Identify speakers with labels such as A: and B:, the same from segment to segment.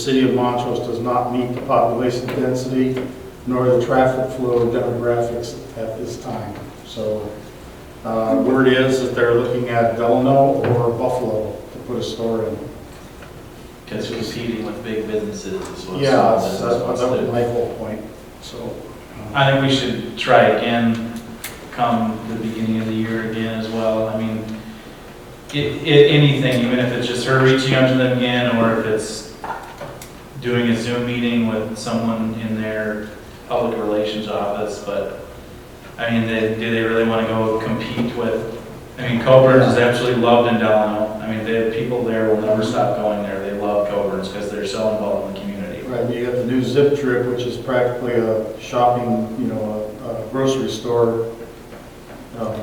A: The City of Montrose does not meet the population density nor the traffic flow and demographics at this time. So uh, word is that they're looking at Delano or Buffalo to put a store in.
B: Because competing with big businesses is what's.
A: Yeah, that's
B: that's
A: that's-
B: what's
A: that was
B: the-
A: my whole point, so. uh,
C: I think we should try again come the beginning of the year again as well. I mean, i- i- anything, even if it's just her reaching out to them again, or if it's doing a Zoom meeting with someone in their public relations office, but, I mean, they, do they really want to go compete with, I mean, Coburn's is absolutely loved in Delano. I mean, the people there will never stop going there. They love Coburn's because they're so involved in the community.
A: Right, you got the new Zip Trip, which is practically a shopping, you know, a a grocery store um,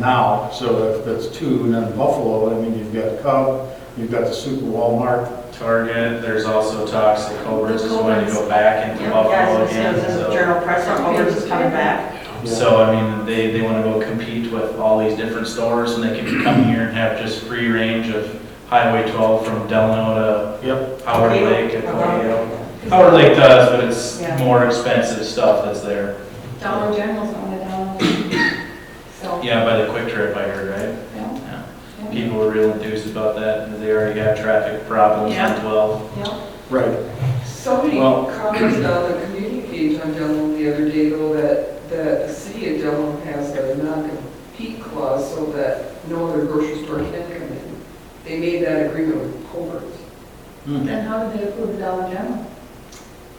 A: now. So if that's two, and then Buffalo, I mean, you've got Cub, you've got the Super Walmart.
C: Target, there's also talks that Coburn's is going to go back into
D: Yeah,
C: Buffalo
D: it's-
C: again,
D: it's a
C: so.
D: journal press, our Culver's is coming back.
C: So, I mean, they, they want to go compete with all these different stores, and they can come here and have just free range of Highway 12 from Delano
A: Yep.
C: to Howard Lake to
D: Uh-huh.
C: Coyo. Howard Lake does, but
D: Yeah.
C: it's more expensive stuff that's there.
E: Dollar General's on the dollar. So,
C: Yeah, by the Quick Trip, I heard,
E: yeah,
C: right? Yeah.
E: yeah,
C: People were real enthused about that, because they already got traffic problems
D: Yeah.
C: on 12.
E: yeah.
A: Right.
F: So many
A: Well-
F: comments on the community page on Dunlop the other day, though, that, that the city of Dunlop has a non-compete clause so that no other grocery store can come in. They made that agreement with Culver's.
E: Then how do they approve Dollar General?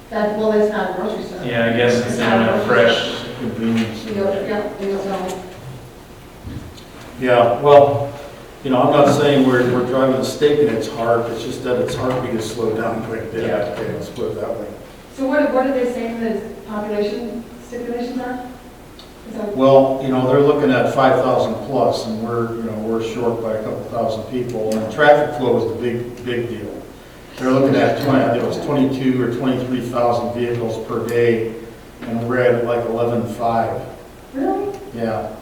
E: That, well, it's not a grocery store.
C: Yeah, I guess it's not a fresh,
A: Convenience.
E: She goes, yeah, we don't know.
A: Yeah, well, you know, I'm not saying we're, we're driving a stake in its heart, it's just that its heartbeat is slowed down quite a bit.
C: Yeah.
A: Okay, let's put it that way.
E: So what, what are they saying the population stipulations are? Is that-
A: Well, you know, they're looking at five thousand plus, and we're, you know, we're short by a couple thousand people, and traffic flow is the big, big deal. They're looking at twenty, it was twenty-two or twenty-three thousand vehicles per day, and we're at like eleven-five,
E: Really?
A: yeah.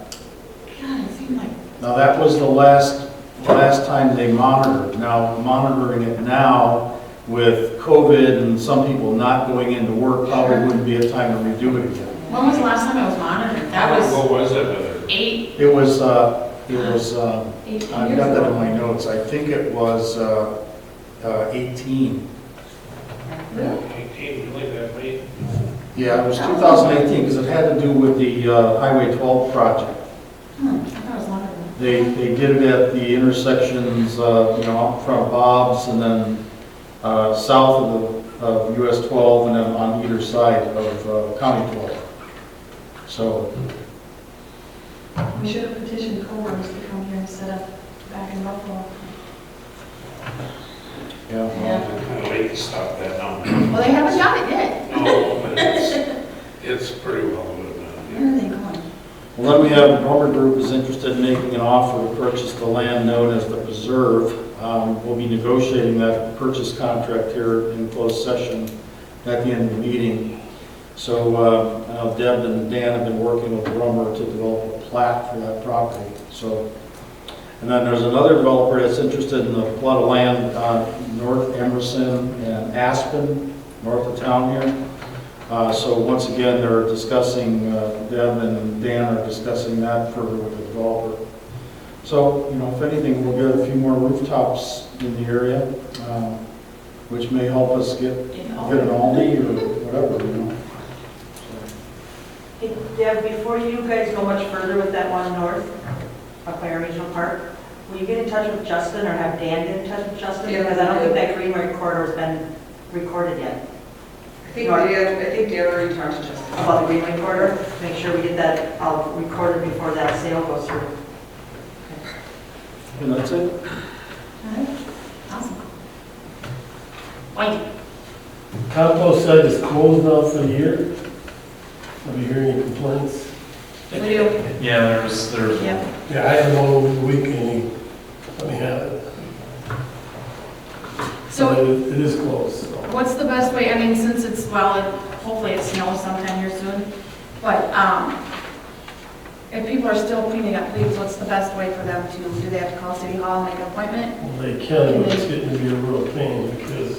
E: God, it seemed like,
A: Now, that was the last, last time they monitored. Now, monitoring it now with COVID and some people not going into work, probably wouldn't be a time to redo it again.
D: When was the last time I was monitored? That was
G: What was it?
D: eight,
A: It was, uh, it was, uh,
E: eighteen years ago.
A: I've got that in my notes, I think it was uh, uh, 18.
E: Really?
G: Eighteen, really that late?
A: Yeah, it was 2018, because it had to do with the uh, Highway 12 project.
E: Hmm, I thought it was longer than
A: They, they did it at the intersections, uh, you know, out front of Bob's, and then uh, south of the, of US 12, and then on either side of uh, County 12. So,
E: that. We should have petitioned Coworkers to come here and set up back in Buffalo.
A: yeah, well,
D: yeah.
G: Kind of late to stop that now.
D: Well, they haven't done it yet.
G: No, but it's, it's pretty well done.
D: Where are they going?
A: Well, then we have a Norman Group is interested in making an offer to purchase the land known as the Preserve. Um, We'll be negotiating that purchase contract here in closed session at the end of the meeting. So uh, I know Deb and Dan have been working with Romer to develop a plat for that property, so. And then there's another developer that's interested in a plot of land on North Emerson and Aspen, north of town here. Uh, So once again, they're discussing, uh, Deb and Dan are discussing that further with the developer. So, you know, if anything, we'll get a few more rooftops in the area, um, which may help us get, get an Aldi or whatever, you know.
D: Hey, Deb, before you guys go much further with that one north, up by our regional park, will you get in touch with Justin or have Dan get in touch with Justin?
F: Yeah.
D: Because I don't think that green recorder's been recorded yet.
F: I think Dan, I think Dan already talked to Justin.
D: About the green recorder, make sure we get that, I'll record it before that sale goes through.
A: And that's it.
E: All right, awesome.
H: Compost site is closed now for the year. I'll be hearing any complaints.
D: We do.
C: yeah, there was, there was
D: Yep.
H: Yeah, I had one over the weekend, let me have it.
I: So
H: But It it is closed, so.
I: what's the best way, I mean, since it's, well, it- hopefully it snows sometime here soon, but um, if people are still cleaning up leaves, what's the best way for them to, do they have to call City Hall and make an appointment?
H: They can, but it's getting to be a real pain because